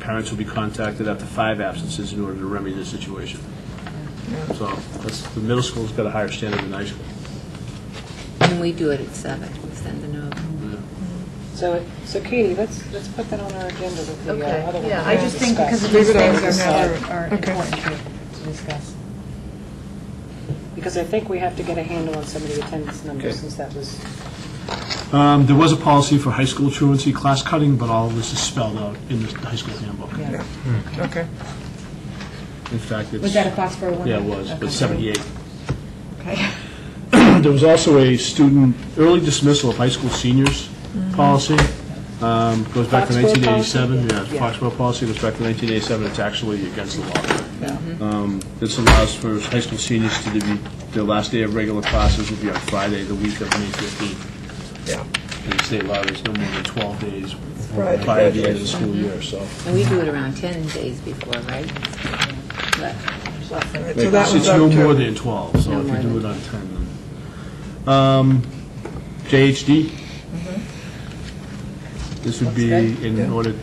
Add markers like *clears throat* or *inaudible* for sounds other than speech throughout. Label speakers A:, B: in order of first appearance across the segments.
A: parents will be contacted after five absences in order to remedy the situation. So that's, the middle school's got a higher standard than high school.
B: And we do it at seven, send a note.
C: So, so Katie, let's, let's put that on our agenda with the uh,
D: Okay,
C: other one.
D: yeah,
C: we
D: I just think
C: discussed.
D: because of these
E: Leave it on
D: things
E: the
D: are,
E: side.
D: are
E: Okay.
D: important to, to discuss.
C: Because I think we have to get a handle on some of the attendance
A: Okay.
C: numbers, since that was,
A: Um, There was a policy for high school truancy class cutting, but all of this is spelled out in the high school handbook.
D: Yeah.
E: Okay.
A: In fact, it's...
D: Was that a class for a woman?
A: Yeah, it was,
D: Okay.
A: but 78.
D: Okay.
A: *clears throat* There was also a student early dismissal of high school seniors policy. Um, Goes back to
C: Foxborough
A: 1987.
C: policy?
A: Yeah, Foxborough policy goes back to 1987. It's actually against the law. Um, This allows for high school seniors to be, their last day of regular classes would be on Friday, the week of May 15th.
E: Yeah.
A: And the state law is no more than 12 days
E: Prior to
A: prior to the end of the school
E: graduation.
A: year, so.
B: And we do it around 10 days before, right? But
E: All right, So that
A: It's
E: one's
A: it's
E: up
A: no more
E: to,
A: than 12, so
B: No
A: if you
B: more
A: do it
B: than-
A: on 10, then. Um, JHD? This would be
D: That's
A: in
E: Mm-hmm. Yeah.
A: order,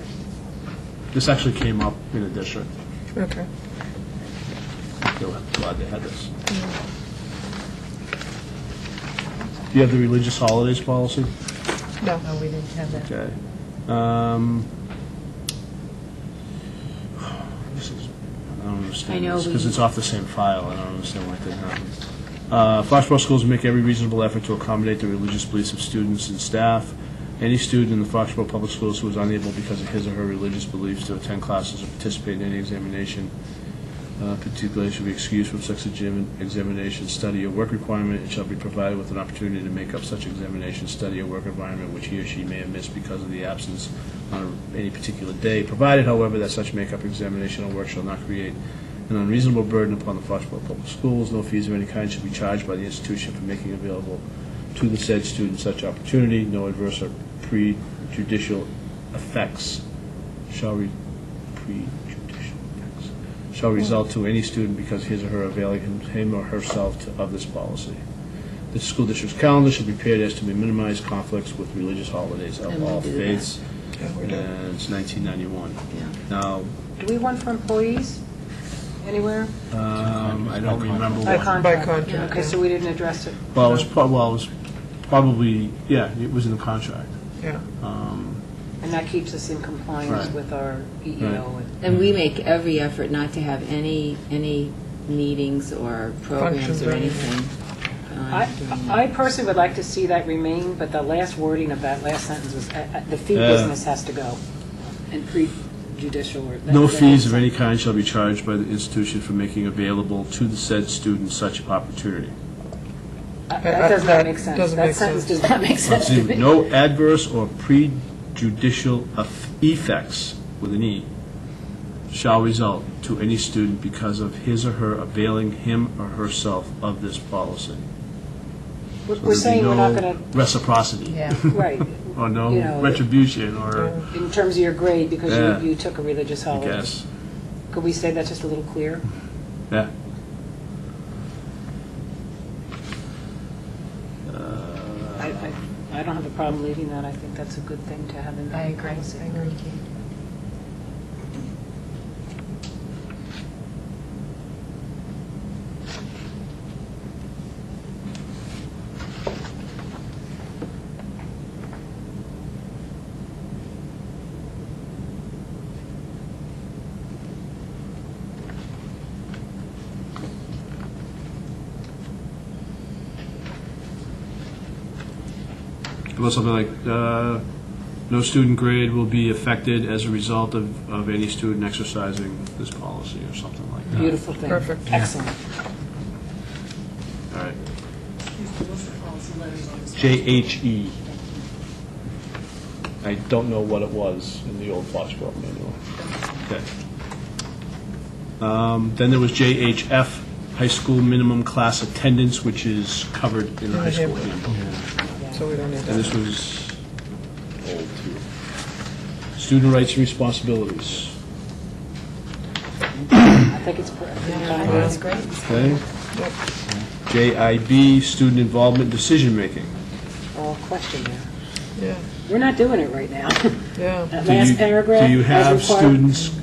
A: this actually came up in a district,
E: okay.
A: they were glad they had this.
E: Mm-hmm.
A: Do you have the religious holidays policy?
E: No.
D: No, Oh, we didn't have that.
A: Okay. Um, This is, I don't
B: Um, I
A: understand
B: know
A: this, because
B: we-
A: it's off the same file, I don't understand why it didn't happen. Uh, Foxborough schools make every reasonable effort to accommodate the religious beliefs of students and staff. Any student in the Foxborough Public Schools who is unable because of his or her religious beliefs to attend classes or participate in any examination, uh, particularly should be excused from such exam- examination, study, or work requirement, and shall be provided with an opportunity to make up such examination, study, or work environment which he or she may have missed because of the absence on any particular day, provided, however, that such makeup examination or work shall not create an unreasonable burden upon the Foxborough Public Schools. No fees of any kind should be charged by the institution for making available to the said student such opportunity. No adverse or prejudicial effects shall re- prejudicial effects shall result to any student because his or her availing him- him or herself to- of this policy. The school district's calendar should be prepared as to minimize conflicts with religious holidays of
B: And we
A: all
B: do that.
A: faiths.
E: Yeah, we do.
A: And it's 1991. Now,
C: do we want for employees anywhere?
A: um, I don't remember what.
C: By
E: By
C: contract?
E: contract.
C: Okay, so we didn't address it.
A: Well, it was, prob- well, it was probably, yeah, it was in the contract.
E: Yeah.
C: And that keeps us in compliance
A: Right.
C: with our E EEO. and-
B: And we make every effort not to have any, any meetings or programs
E: Functions
B: or
E: or
B: anything.
C: I,
B: on during that.
C: I personally would like to see that remain, but the last wording of that last sentence was, uh, uh, the fee
A: Yeah.
C: business has to go, and prejudicial. or-
A: No
C: that-
A: fees of any kind shall be charged by the institution for making available to the said student such opportunity.
C: Uh,
E: Uh,
C: That does
E: that
C: not make sense.
E: doesn't
C: That
E: make
C: sentence
E: sense.
C: does not make
A: Let's
C: sense
A: see,
C: to me.
A: No adverse or prejudicial eff- effects, with an E, shall result to any student because of his or her availing him or herself of this policy. So
C: We're- We're
A: there'd be
C: saying we're
A: no
C: not going
A: Reciprocity.
D: Yeah.
C: to, right,
A: Or
C: You
A: no
C: know,
A: retribution, or,
C: in terms of your grade,
A: Yeah.
C: because you, you took a religious
A: I
C: holiday.
A: guess,
C: Could we say that just a little clearer?
A: yeah. Uh,
C: I, I, I don't have a problem leaving that, I think that's a good thing to have in
D: I
C: the
D: agree, I
C: policy.
D: agree, Kate.
A: How About something like, uh, no student grade will be affected as a result of, of any student exercising this policy, or something like that.
C: Beautiful thing.
E: Perfect.
C: Excellent.
A: All right. JHE. E. I don't know what it was in the old Foxborough manual. Okay. Um, Then there was JHF, high school minimum class attendance, which is covered in the high school handbook.
E: So we don't need
A: And
E: that.
A: this was old, too. Student rights and responsibilities.
C: I think it's, per- I think
D: Yeah, I
C: it's-
D: think it's great.
A: Okay? JIB, student involvement decision-making.
C: oh, question there.
E: Yeah.
C: we're not doing it right now.
E: Yeah.
C: That
A: Do you-
C: *laughs* last paragraph.
A: Do you
C: as
A: have
C: required-
A: students